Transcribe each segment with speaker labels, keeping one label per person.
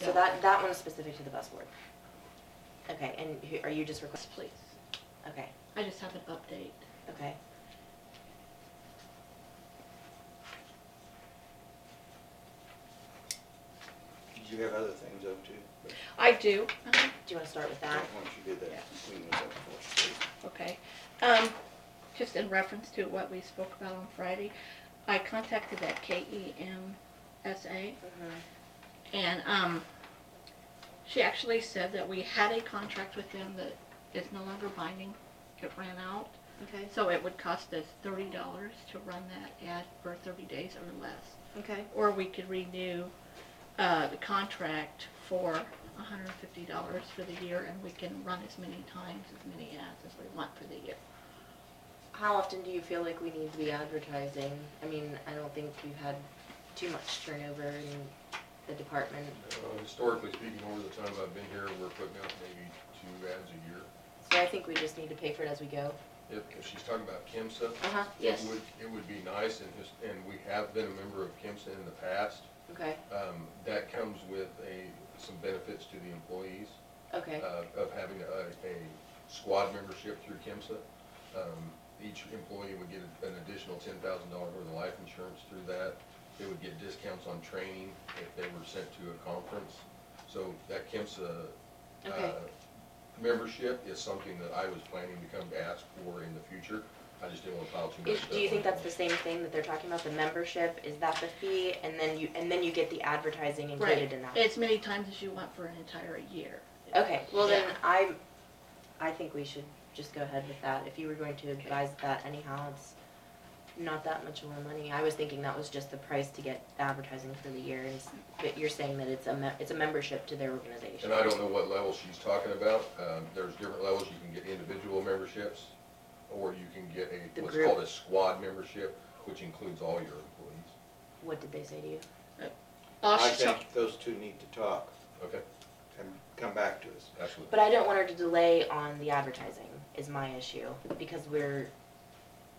Speaker 1: So that, that one's specific to the bus board. Okay, and who, are you just
Speaker 2: Yes,
Speaker 1: requesting?
Speaker 2: Please,
Speaker 1: Okay,
Speaker 2: I just have an update.
Speaker 1: okay.
Speaker 3: Did you have other things up too? But
Speaker 4: I do,
Speaker 2: Uh-huh.
Speaker 1: Do you wanna start with
Speaker 3: Why
Speaker 1: that?
Speaker 3: don't you do that,
Speaker 2: Yeah.
Speaker 3: clean those up for us, please?
Speaker 4: okay. Um, just in reference to what we spoke about on Friday, I contacted that E KEMSA
Speaker 1: Mhm.
Speaker 2: Mm-hmm.
Speaker 4: and, um, she actually said that we had a contract with them that is no longer binding. It ran out.
Speaker 2: Okay,
Speaker 4: So it would cost us thirty dollars to run that ad for thirty days or less.
Speaker 2: okay,
Speaker 4: Or we could renew, uh, the contract for hundred and fifty dollars for the year and we can run as many times, as many ads as we want for the year.
Speaker 1: How often do you feel like we need to be advertising? I mean, I don't think we've had too much turnover in the department.
Speaker 5: Uh, Historically speaking, over the time I've been here, we're putting out maybe two ads a year.
Speaker 1: So I think we just need to pay for it as we go.
Speaker 5: If, if she's talking about KIMSA,
Speaker 1: Uh-huh,
Speaker 4: Yes.
Speaker 5: it would, it would be nice, and his, and we have been a member of KIMSA in the past.
Speaker 1: okay,
Speaker 5: Um, that comes with a, some benefits to the employees,
Speaker 1: okay,
Speaker 5: uh, of having a, a squad membership through KIMSA. Um, each employee would get an additional ten thousand dollars worth of life insurance through that. They would get discounts on training if they were sent to a conference. So that KIMSA
Speaker 1: okay,
Speaker 5: uh, Membership is something that I was planning to come to ask for in the future. I just didn't want to pile too much
Speaker 1: Is-
Speaker 5: stuff.
Speaker 1: do you think
Speaker 5: on
Speaker 1: that's the same thing that they're talking about, the membership, is that the fee, and then you, and then you get the advertising included in that?
Speaker 4: As many times as you want for an entire year.
Speaker 1: Okay, well then,
Speaker 4: Yeah.
Speaker 1: I, I think we should just go ahead with that, if you were going to advise that anyhow, it's not that much more money, I was thinking that was just the price to get advertising for the year, and, s- but you're saying that it's a me- it's a membership to their
Speaker 5: one.
Speaker 1: organization.
Speaker 5: And I don't know what level she's talking about. Um, There's different levels. You can get individual memberships, or you can get
Speaker 1: The
Speaker 5: a, what's
Speaker 1: group.
Speaker 5: called a squad membership, which includes all your employees.
Speaker 1: What did they say to you?
Speaker 4: Oh,
Speaker 3: I
Speaker 4: she told-
Speaker 3: think those two need to talk
Speaker 5: Okay,
Speaker 3: and come back to us.
Speaker 5: absolutely.
Speaker 1: But I don't want her to delay on the advertising, is my issue, because we're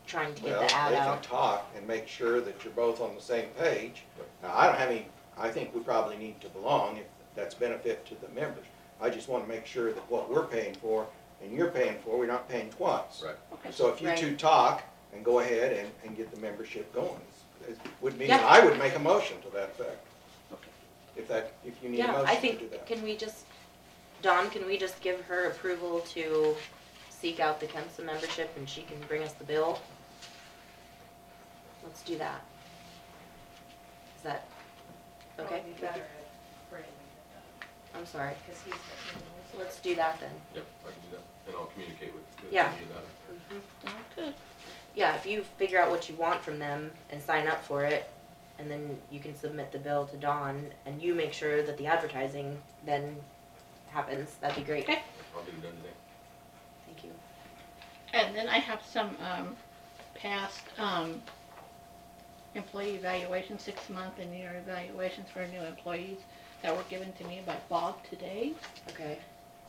Speaker 1: trying to get
Speaker 3: Well, they
Speaker 1: the ad
Speaker 3: can
Speaker 1: out.
Speaker 3: talk and make sure that you're both on the same page. Now, I don't have any, I think we probably need to belong if that's benefit to the members. I just wanna make sure that what we're paying for and you're paying for, we're not paying twice.
Speaker 5: Right.
Speaker 4: Okay.
Speaker 3: So if you
Speaker 1: Right.
Speaker 3: two talk and go ahead and, and get the membership going, it would mean,
Speaker 1: Yeah.
Speaker 3: I would make a motion to that effect.
Speaker 4: Okay.
Speaker 3: If that, if you need a
Speaker 1: Yeah, I
Speaker 3: motion to do
Speaker 1: think,
Speaker 3: that.
Speaker 1: can we just, Dawn, can we just give her approval to seek out the Kemsa membership and she can bring us the bill? Let's do that. Is that, okay?
Speaker 6: Probably better if Brandon did
Speaker 1: I'm sorry,
Speaker 6: that, 'cause he's the-
Speaker 1: let's do that then.
Speaker 5: Yep, I can do that, and I'll communicate with. with
Speaker 1: Yeah.
Speaker 5: you about it.
Speaker 4: Oh, Good.
Speaker 1: Yeah, if you figure out what you want from them and sign up for it, and then you can submit the bill to Dawn, and you make sure that the advertising then happens, that'd be great.
Speaker 4: Okay.
Speaker 5: I'll get it done today.
Speaker 1: Thank you.
Speaker 4: And then I have some, um, past, um, employee evaluations, six month and year evaluations for new employees that were given to me by Bob today.
Speaker 1: Okay,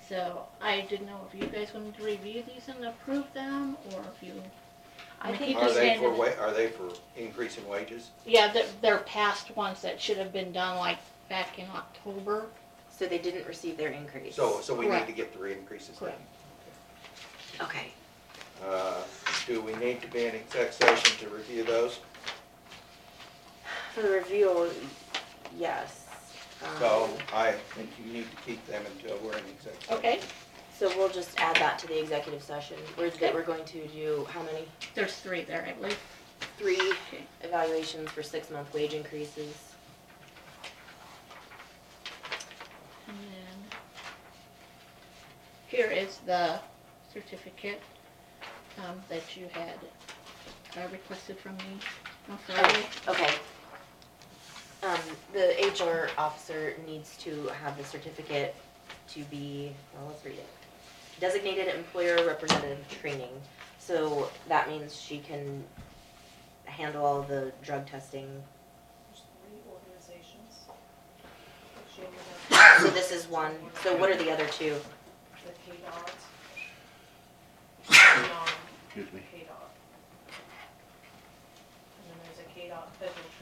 Speaker 4: So I didn't know if you guys wanted to review these and approve them, or if you, I
Speaker 1: I
Speaker 4: mean,
Speaker 1: think,
Speaker 4: he-
Speaker 3: Are they
Speaker 4: understand
Speaker 3: for
Speaker 4: it.
Speaker 3: wa, are they for increasing wages?
Speaker 4: yeah, they're, they're past ones that should have been done like back in October.
Speaker 1: so they didn't receive their increase.
Speaker 3: So, so we need to
Speaker 4: Correct.
Speaker 3: get the re-increases then.
Speaker 4: Correct.
Speaker 1: Okay.
Speaker 3: Uh, Do we need to be in exec session to review those?
Speaker 1: For the review, yes. Um,
Speaker 3: So I think you need to keep them until we're in exec session.
Speaker 4: Okay,
Speaker 1: So we'll just add that to the executive session, where that we're going to do, how many?
Speaker 4: there's three there, I believe.
Speaker 1: Three
Speaker 4: Okay.
Speaker 1: evaluations for six-month wage increases.
Speaker 4: And then, here is the certificate, um, that you had uh, requested from me on Friday.
Speaker 1: Okay. Um, the HR officer needs to have the certificate to be, well, let's read it. Designated Employer Representative Training. So that means she can handle all the drug testing.
Speaker 6: There's three organizations. that she ended up-
Speaker 1: So this is one. So what are the other two?
Speaker 6: The KDOT. Excuse me. KDOT. And then there's a KDOT federal